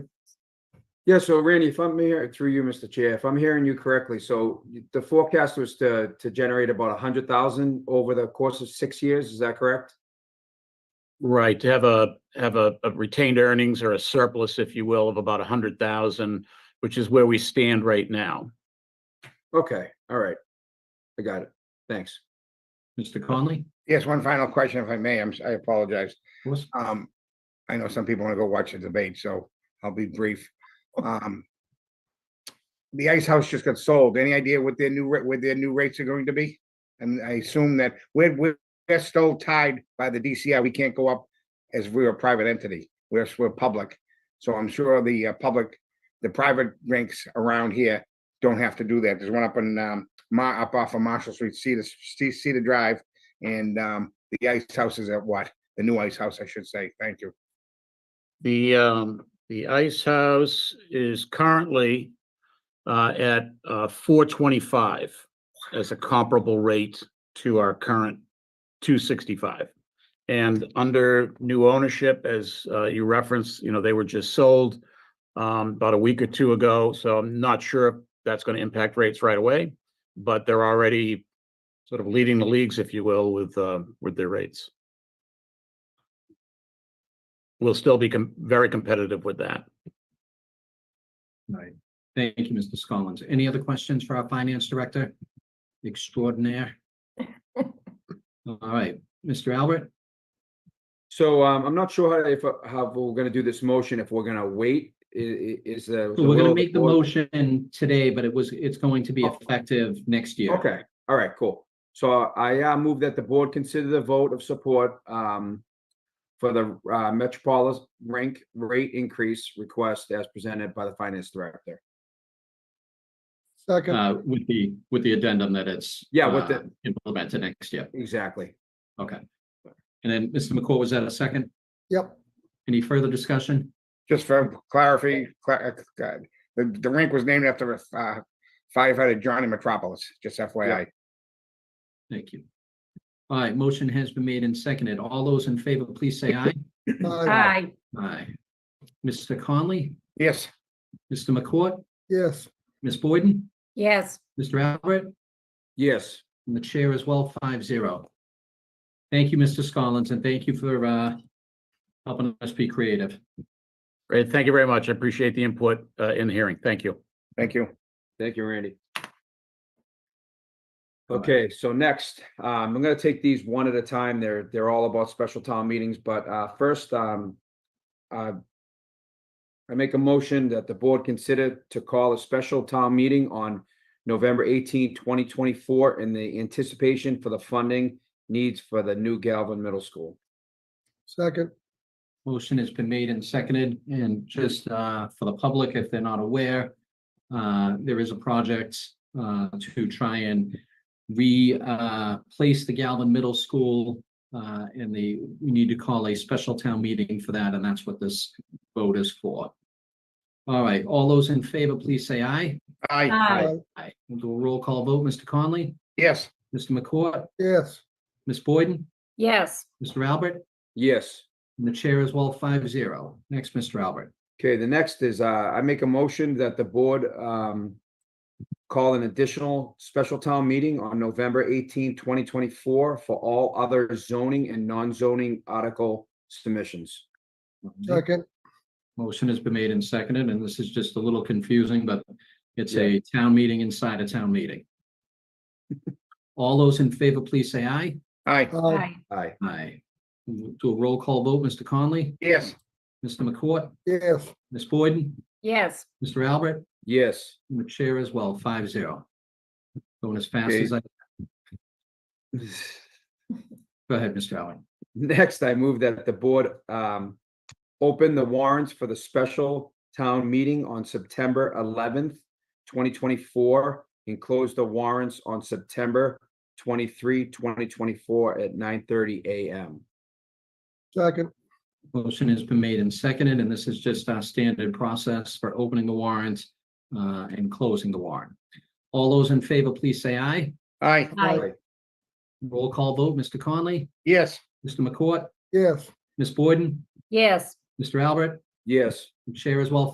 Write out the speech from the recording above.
Yeah, so Randy, if I'm here, through you, Mr. Chair, if I'm hearing you correctly, so you- the forecast was to, to generate about a hundred thousand over the course of six years, is that correct? Right, to have a, have a a retained earnings or a surplus, if you will, of about a hundred thousand, which is where we stand right now. Okay, all right. I got it. Thanks. Mr. Conley? Yes, one final question, if I may. I'm, s- I apologize. Yes. Um, I know some people want to go watch the debate, so I'll be brief. Um, the Ice House just got sold. Any idea what their new, ra- what their new rates are going to be? And I assume that we're, we're we're still tied by the DCI. We can't go up as we're a private entity. We're, s- we're public. So I'm sure the uh, public, the private rinks around here don't have to do that. There's one up in, um, Ma, up off of Marshall Street, Cedar, C- Cedar Drive. And, um, the Ice House is at what? the new ice house, I should say. Thank you. The, um, the Ice House is currently uh, at uh, four twenty-five as a comparable rate to our current two sixty-five. And under new ownership, as uh, you referenced, you know, they were just sold um, about a week or two ago, so I'm not sure if that's going to impact rates right away, but they're already sort of leading the leagues, if you will, with, uh, with their rates. We'll still be com- very competitive with that. Right. Thank you, Mr. Scollins. Any other questions for our finance director? Extraordinaire. All right, Mr. Albert? So, um, I'm not sure how, if, how we're gonna do this motion, if we're gonna wait, i- i- is the. So We're will gonna of make the board- motion today, but it was, it's going to be Oh. effective next year. Okay, all right, cool. So I uh, move that the board consider the vote of support um, for the uh, Metropolis rank rate increase request as presented by the finance director. Second, Uh, with the, with the addendum that it's. Yeah, with the- uh, Implemented next year. Exactly. Okay. And then, Mr. McCall, was that a second? yep, Any further discussion? Just for clarity, cla- uh, God, the, the rink was named after uh, firefighter Johnny Metropolis, just FYI. Thank you. All right, motion has been made and seconded. All those in favor, please say aye. aye, Aye, Aye. Mr. Conley, Yes, Mr. McCourt, yes, Ms. Boyden, yes, Mr. Albert, Yes, and the chair as well, five zero. Thank you, Mr. Scollins, and thank you for uh helping us be creative. Great. Thank you very much. I appreciate the input uh, in the hearing. Thank you. thank you. thank you, Randy. All right. Okay, so next, um, I'm gonna take these one at a time. They're, they're all about special town meetings, but uh, first, um, uh, I make a motion that the board consider to call a special town meeting on November 18, 2024 in the anticipation for the funding needs for the new Galvin Middle School. second, Motion has been made and seconded, and just uh for the public, if they're not aware, uh there is a project uh to try and re uh place the Galvin Middle School uh in the, we need to call a special town meeting for that, and that's what this vote is for. All right, all those in favor, please say aye. Aye, aye, Aye. We'll do a roll call vote. Mr. Conley, yes, Mr. McCourt, yes, Ms. Boyden, yes, Mr. Albert, Yes. and the chair as well, five zero. Next, Mr. Albert. Okay, the next is, uh, I make a motion that the board, um, call an additional special town meeting on November 18, 2024, for all other zoning and non-zoning article submissions. second, Motion has been made and seconded, and this is just a little confusing, but it's a town meeting inside a town meeting. All those in favor, please say aye. aye, aye, aye, Aye, Aye. We'll Do a roll call vote. Mr. Conley, yes, Mr. McCourt, yes, Ms. Boyden, yes, Mr. Albert, yes. and the chair as well, five zero. Going as fast Okay. as I, go ahead, Mr. Allen. Next, I move that the board, um, open the warrants for the special town meeting on September eleventh, twenty twenty-four, and close the warrants on September 23, 2024, at nine thirty AM. second, Motion has been made and seconded, and this is just our standard process for opening the warrant uh, and closing the warrant. All those in favor, please say aye. aye, aye, Roll call vote, Mr. Conley, yes, Mr. McCourt, yes. Ms. Boyden, yes. Mr. Albert, Yes. the chair as well,